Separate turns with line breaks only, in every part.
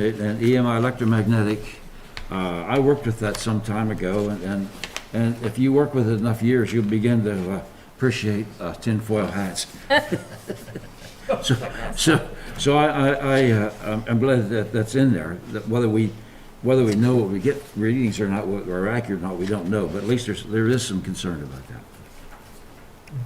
Okay, And EMI electromagnetic, uh, I worked with that some time ago, and- and, and if you work with it enough years, you'll begin to uh, appreciate uh, tinfoil hats. So, so, so I, I, I, uh, I'm- I'm glad that that's in there, that whether we, whether we know what we get readings or not, what- or accurate or not, we don't know, but at least there's, there is some concern about that.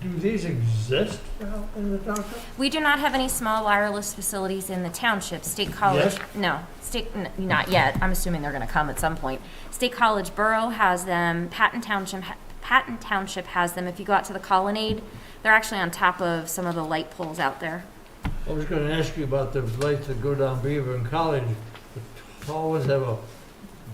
Do these exist now in the township?
We do not have any small wireless facilities in the township. State College,
Yes?
no, state, n- not yet. I'm assuming they're gonna come at some point. State College Borough has them, Patton Township, ha- Patton Township has them. If you go out to the colonnade, they're actually on top of some of the light poles out there.
I was gonna ask you about the lights that go down Beaver and College. The tall ones have a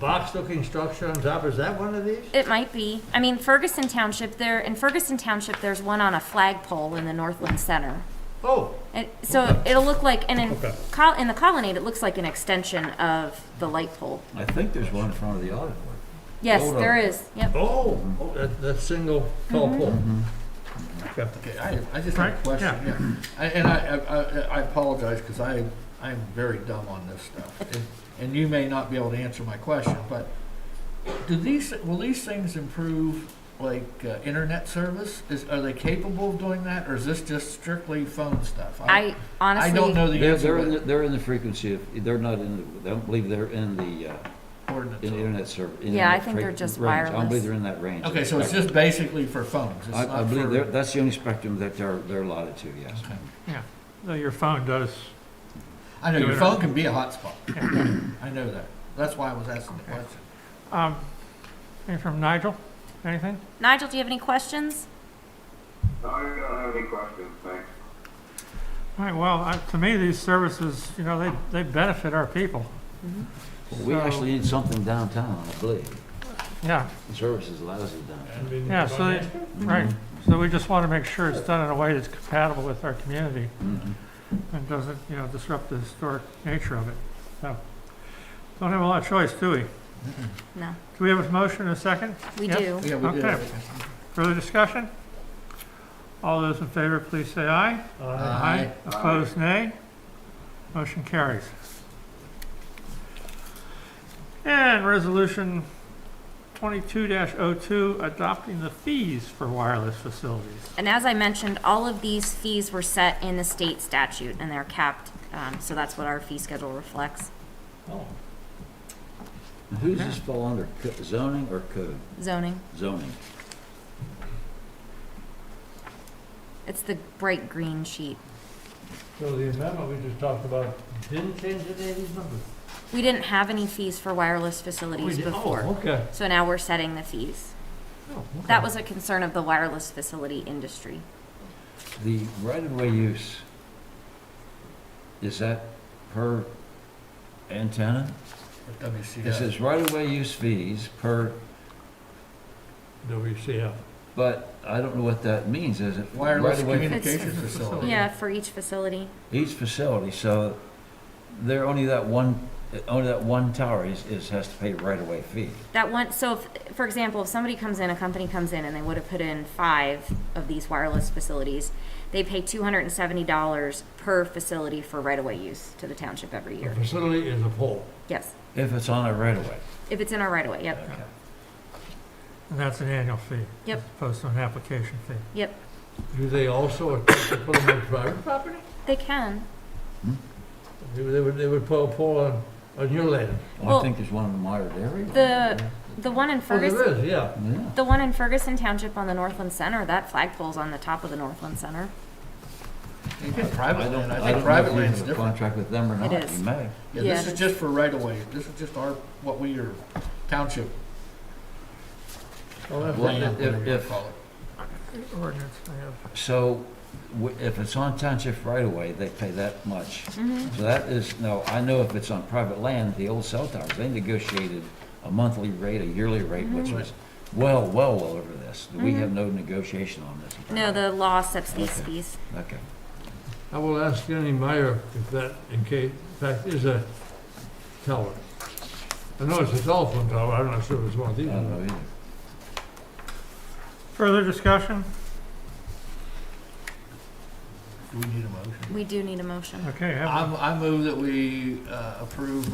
box-looking structure on top. Is that one of these?
It might be. I mean, Ferguson Township, there, in Ferguson Township, there's one on a flagpole in the Northland Center.
Oh,
It, so it'll look like, and in,
Okay.
col- in the colonnade, it looks like an extension of the light pole.
I think there's one in front of the audit board.
Yes,
Hold
there
on.
is, yep.
oh, oh, that, that single tall pole.
Mm-hmm.
Okay.
Okay, I, I just have
Right,
a question, yeah. I- And I, I- I, I apologize, because I, I'm very dumb on this stuff. And- And you may not be able to answer my question, but do these, will these things improve, like, uh, internet service? Is, are they capable of doing that, or is this just strictly phone stuff?
I honestly.
I don't know the
They're, they're, in the-
answer to
they're in the frequency of, they're not in, the- I don't believe they're in the, uh,
the ordinance.
in the internet server. in
Yeah, I
that
think they're
fre-
just
range. I don't believe
wireless.
they're in that range.
Okay, so it's just basically for phones? It's
I, I
not
believe
for-
they're, that's the only spectrum that they're, they're allotted to, yes.
Okay.
No, your phone does.
I know, your
Doing it.
phone can be a hotspot. I know that. That's why I was asking the question.
Um, anything from Nigel? Anything?
Nigel, do you have any questions?
I don't have any questions, thanks.
All right, well, I- to me, these services, you know, they, they benefit our people.
We
So-
actually need something downtown, I believe.
Yeah,
The Services lousy downtown.
yeah, so, they- right. So we just want to make sure it's done in a way that's compatible with our community
Mhm.
and doesn't, you know, disrupt the historic nature of it. So, don't have a lot of choice, do we? Do
No,
we have a motion and a second?
we
Yep.
do.
Yeah, we did.
Okay. Further discussion? All those in favor, please say aye.
Aye.
Opposed, nay. Motion carries. And resolution twenty-two 2 adopting the fees for wireless facilities.
And as I mentioned, all of these fees were set in the state statute and they're capped, um, so that's what our fee schedule reflects.
Oh.
Who does this fall under, Co- zoning or code?
Zoning,
Zoning.
it's the bright green sheet.
So the amendment we just talked about didn't change any of these numbers?
We didn't have any fees for wireless facilities
We did-
before,
Oh, okay.
so now we're setting the fees.
Oh,
That
okay.
was a concern of the wireless facility industry.
The right-of-way use, is that per antenna? It
WCS.
says right-of-way use fees per,
WCF.
but I don't know what that means, is it?
Wireless
right-of-way-
communication
It's-
Oh,
facility.
Yeah, for each facility.
each facility, so there only that one, only that one tower is, is, has to pay right-of-way fee.
That one, so if, for example, if somebody comes in, a company comes in and they would have put in five of these wireless facilities, they pay two hundred and seventy dollars per facility for right-of-way use to the township every
The
year.
facility is a pole.
Yes,
If it's on a right-of-way.
if it's in our right-of-way, yep,
Okay.
And that's an annual fee.
Yep.
As opposed to an application fee.
yep,
Do they also attempt to put them on private property?
they can.
They would- they would, they would put a pole on, on your land?
Well, I think there's one in the Meyer area.
The, the one in
Oh,
Ferguson,
there is, yeah.
Yeah,
the one in Ferguson Township on the Northland Center, that flagpole's on the top of the Northland Center.
You get
I
private
don't,
land,
I
I think
don't know
private
if you
land's
have a
different.
contract with them or not.
It is.
You may.
Yeah, this
Yeah.
is just for right of way, this is just our, what we are, township
Oh, that's-
Well,
land, whatever you
if-
call it.
Ordinance, I have.
So w- if it's on township right-of-way, they pay that much.
Mm-hmm.
So that is, no, I know if it's on private land, the old cell towers, they negotiated a monthly rate, a yearly rate,
Mm-hmm.
which was well, well, well over this. We have no negotiation on this.
Uh-huh.
No, the law sets these fees.
Okay.
I will ask Jenny Meyer if that, in case, in fact, is a tower. I know it's a telephone tower, I'm not sure if it's one of
I
these.
don't know either.
Further discussion?
Do we need a motion?
We do need a motion.
Okay, have a
I, I move that we uh, approve